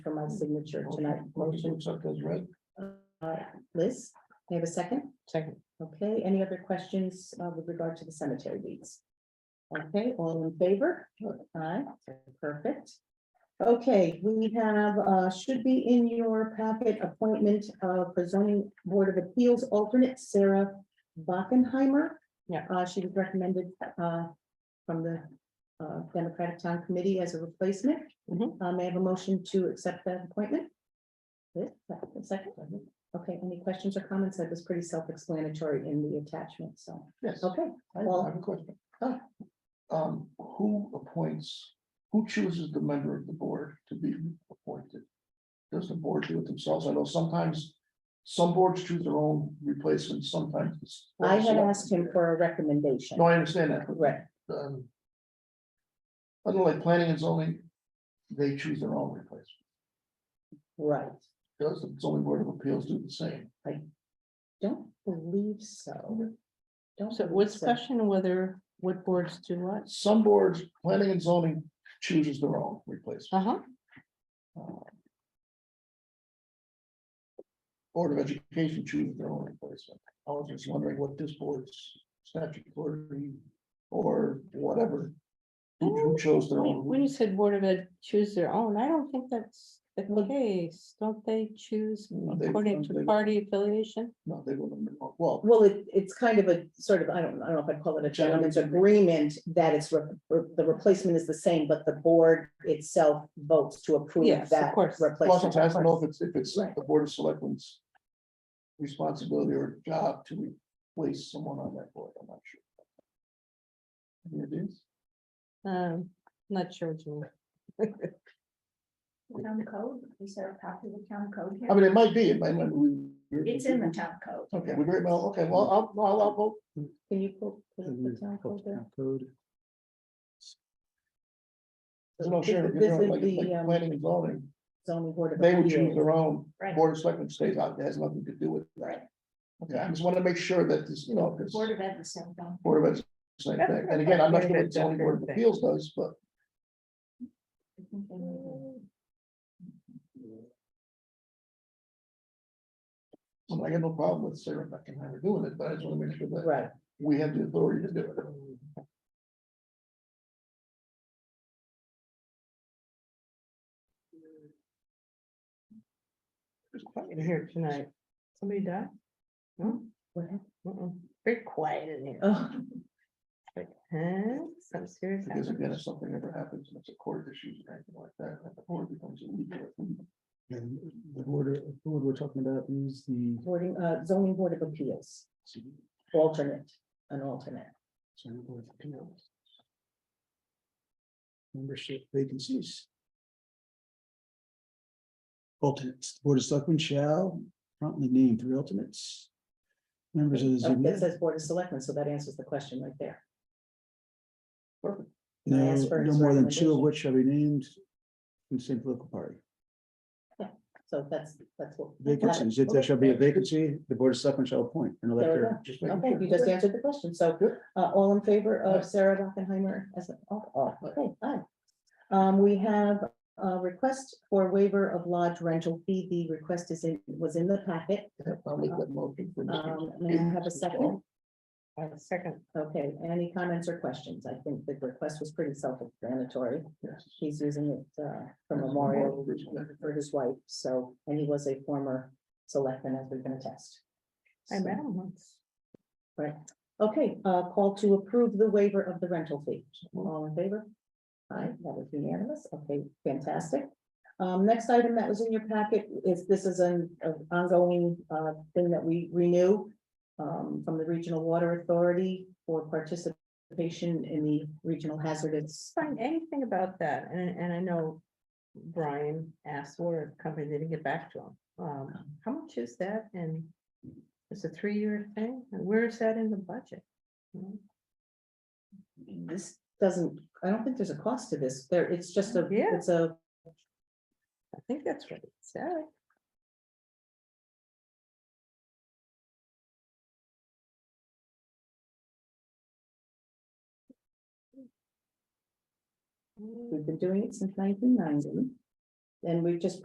last signature tonight. Motion, Looks like that's right. uh, Liz, may I have a second? Second. Okay, any other questions uh, with regard to the cemetery deeds? Okay, all in favor? Aye, perfect. Okay, we have, uh, should be in your packet, appointment of the zoning board of appeals alternate Sarah Bockenheimer. Yeah. Uh, she was recommended, uh, from the uh, Democratic Town Committee as a replacement. Mhm. Uh, may I have a motion to accept that appointment? Liz, Second, okay, any questions or comments? That was pretty self-explanatory in the attachment, so, Yes, I okay. I have a question. Oh. Um, who appoints, who chooses the member of the board to be appointed? Does the board do it themselves? I know sometimes some boards choose their own replacements, sometimes. it's- I had asked him for a recommendation. No, I understand that. but, Right. um, Unlike planning and zoning, they choose their own replacement. Right, Does the zoning board of appeals do the same? don't believe so. Don't. So believe what's question whether what boards do what? Some boards, planning and zoning chooses their own replacement. Uh, Uh-huh. Board of Education chooses their own replacement. I was just wondering what this board's statutory or whatever. Who who chose their When when own? you said Board of Ed choose their own, I don't think that's the case. Don't they choose No, they- according to they- party affiliation? No, they wouldn't. Well, Well, it, it's kind of a sort of, I don't, I don't know if I'd call it a gentleman's agreement that it's, re- re- the replacement is the same, but the board itself votes to approve Yes, of that course. plus replacement. I don't know if it's, if it's Right. the Board of Selectmen's responsibility or job to replace someone on that board. I'm not sure. It is. Um, not sure. what you mean. Town code, is there a copy of the town code I here? Um, mean, it might be, it might, might- we. we're- It's in the town code. Okay, we very well, okay, well, I'll, I'll, I'll vote. Can you pull? pull up Mm-hmm. the town code there? Code. No, sure, you This know, is like, the, like um, planning and zoning, zoning board of they would choose appeals. their own, Right. board of selectmen stays out, it has nothing to do with that. Okay, I just want to make sure that this, you know, this Board of Ed, the same thing. board of Ed's the same thing, and again, I'm not sure what zoning board of appeals does, but. I think they were- I mean, I got no problem with Sarah Beckenheimer doing it, but I just want to make sure that Right, we have the authority to do it. It's quiet Here tonight. Somebody died? No? What happened? Mm-mm. Very quiet in here. oh, Like, huh? Some serious. Because happened. again, if something ever happens, and it's a court issue or anything like that, then the board becomes illegal. And the board, the board we're talking about is the, boarding, uh, zoning board of appeals, alternate, an alternate. sorry, board of appeals. Membership vacancies. Alternates, The board of selectmen shall promptly name three alternates. Members of the. Okay, It ZBA. Oh, says board of selectmen, so that answers the question right there. No, I asked for no his more than two of recommendation. which shall be named in same political party. So that's, that's what. Vacancies, if there shall be a vacancy, the board of selectmen shall appoint an There we go. elector Just making Okay, sure. you just answered the question, so, Good. uh, all in favor of Sarah Dockenheimer as an, oh, oh, okay, aye. Um, we have a request for waiver of lodge rental fee, the request is in, was in the packet, I'll make that motion for Mr. um, may I have a second? Uh, Second, Okay, any comments or questions, I think the request was pretty self-explanatory, Yes. he's using it, uh, for memorial for his wife, so, and he was a former selectman, as we can attest. I met him once. Right, okay, uh, call to approve the waiver of the rental fee. All in favor? Aye, that was unanimous. Okay, fantastic. Um, next item that was in your packet is, this is an an ongoing, uh, thing that we renew um, from the Regional Water Authority for participation in the Regional Hazardous. Find anything about that, and, and I know Brian asked for a company, they didn't get back to him. Um, how much is that, and it's a three-year thing, and where is that in the budget? Hmm? This doesn't, I don't think there's a cost to this. There, it's just a, Yeah. it's a, I think that's what it said. Hmm. we've been doing it since nineteen ninety. And we've just